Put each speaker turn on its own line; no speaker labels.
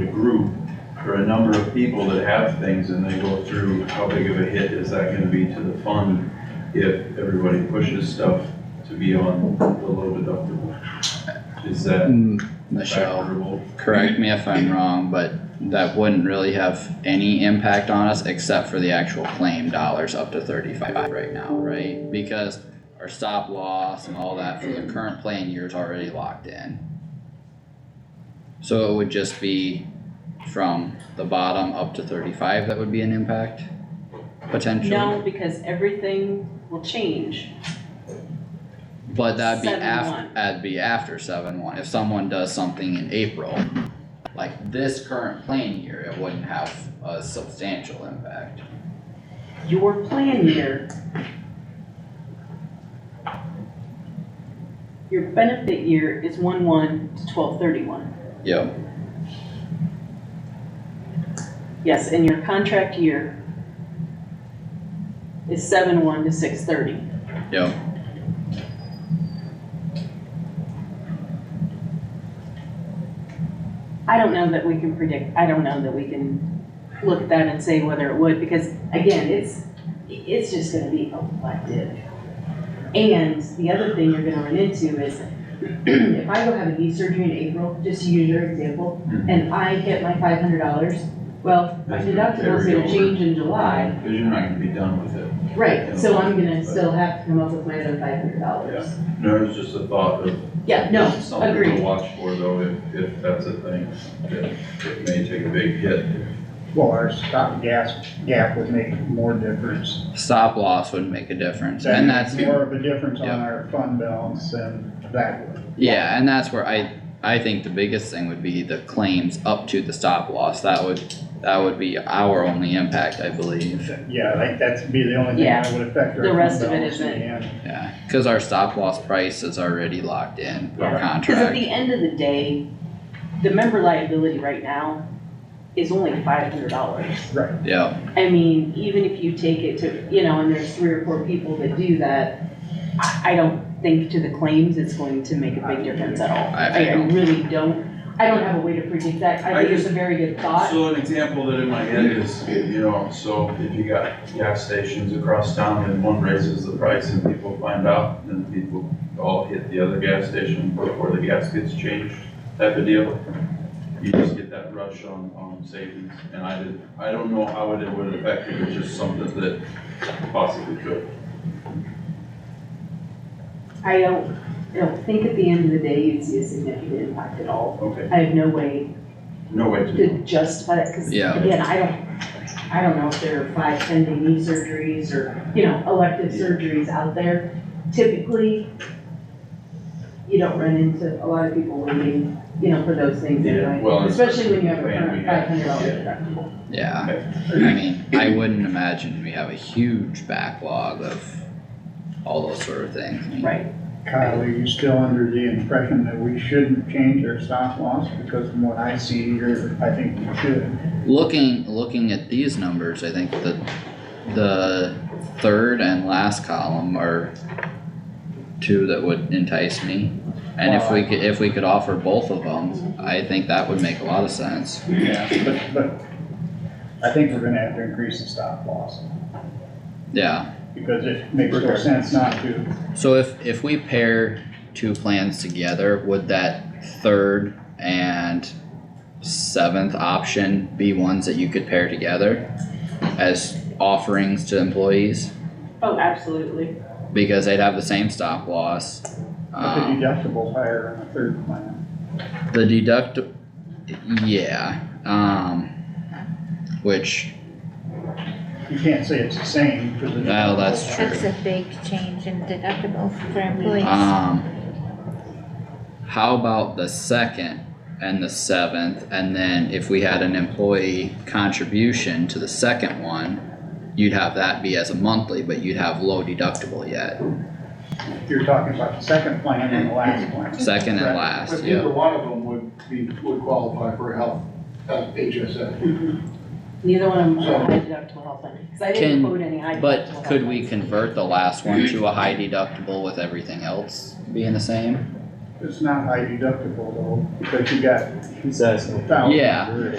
a group or a number of people that have things and they go through, how big of a hit is that gonna be to the fund if everybody pushes stuff to be on the low deductible? Is that
Michelle,
factorable?
correct me if I'm wrong, but that wouldn't really have any impact on us except for the actual claim dollars up to thirty-five right now, right? Because our stop loss and all that for the current plan year is already locked in. So it would just be from the bottom up to thirty-five that would be an impact, potentially?
No, because everything will change.
But that'd be
Seven
af-
one.
that'd be after seven one, if someone does something in April, like this current plan year, it wouldn't have a substantial impact.
Your plan year. Your benefit year is one one to twelve thirty-one.
Yep,
Yes, and your contract year is seven one to six thirty.
yep,
I don't know that we can predict, I don't know that we can look at that and say whether it would, because again, it's, it's just gonna be elective. And the other thing you're gonna run into is, if I go have a knee surgery in April, just to use your example,
Mhm.
and I get my five hundred dollars, well, my
That's gonna
deductible's
carry
gonna
over.
change in July.
Cause you're not gonna be done with it.
Right, so I'm gonna still have to come up with my other five hundred dollars.
No, it's just a thought of
Yeah, no,
something to
agreed.
watch for though, if, if that's a thing, that it may take a big hit.
Well, our stop gas gap would make more difference.
stop loss would make a difference,
That
and
makes
that's,
More of a difference on
Yeah.
our fund balance than that would.
yeah, and that's where I, I think the biggest thing would be the claims up to the stop loss, that would, that would be our only impact, I believe.
Yeah, like that's be the only thing that would affect our
the
fund
rest of it
balance in the
isn't.
end.
Yeah, cause our stop loss price is already locked in per
Yeah. Cause at
contract,
the end of the day, the member liability right now is only five hundred dollars.
yep.
I mean, even if you take it to, you know, and there's three or four people that do that, I, I don't think to the claims it's going to make a big difference at all.
I- I
I, I
don't.
really don't, I don't have a way to predict that,
I
I think it's
just-
a very good thought.
So an example that in my head is, you know, so if you got gas stations across town and one raises the price and people find out, then people all hit the other gas station before the gas gets changed, type of deal. You just get that rush on, on savings, and I did, I don't know how it would affect it, it's just something that possibly could.
I don't, I don't think at the end of the day you'd see a significant impact at all.
Okay,
I have no way
no way to
to justify that, cause
Yeah.
again, I don't, I don't know if there are five pending knee surgeries or, you know, elective
Yeah.
surgeries out there. Typically, you don't run into a lot of people waiting, you know, for those things
Yeah,
anyway,
well, it's-
especially when you have a
Yeah, we
current
have-
five hundred dollar
yeah.
deductible.
Yeah, I mean, I wouldn't imagine we have a huge backlog of all those sort of things. I mean,
Right.
Kyle, are you still under the impression that we shouldn't change our stop loss? Because from what I see here, I think we should.
Looking, looking at these numbers, I think the, the third and last column are two that would entice me. And if we could, if we could offer both of them, I think that would make a lot of sense.
Yeah. But, but I think we're gonna have to increase the stop loss
Yeah,
because it makes no sense not to.
so if, if we pair two plans together, would that third and seventh option be ones that you could pair together as offerings to employees?
Oh, absolutely.
Because they'd have the same stop loss.
But the
Um,
deductible's higher on the third plan.
the deduct, yeah, um, which,
You can't say it's the same because. the
well, that's true.
That's a big change in deductible for employees.
Um, how about the second and the seventh, and then if we had an employee contribution to the second one, you'd have that be as a monthly, but you'd have low deductible yet,
You're talking about the second plan and the last plan.
second and
Correct.
last,
But
yeah.
either one of them would be, would qualify for health, uh, HSA.
Neither one of them
So-
are high deductible health plan, cause I
Can-
didn't quote any high deductible.
But
health
could we
plans.
convert the last one to a high deductible with everything else being the same?
It's not high deductible though, because you got
He's asking.
thousand.
Yeah.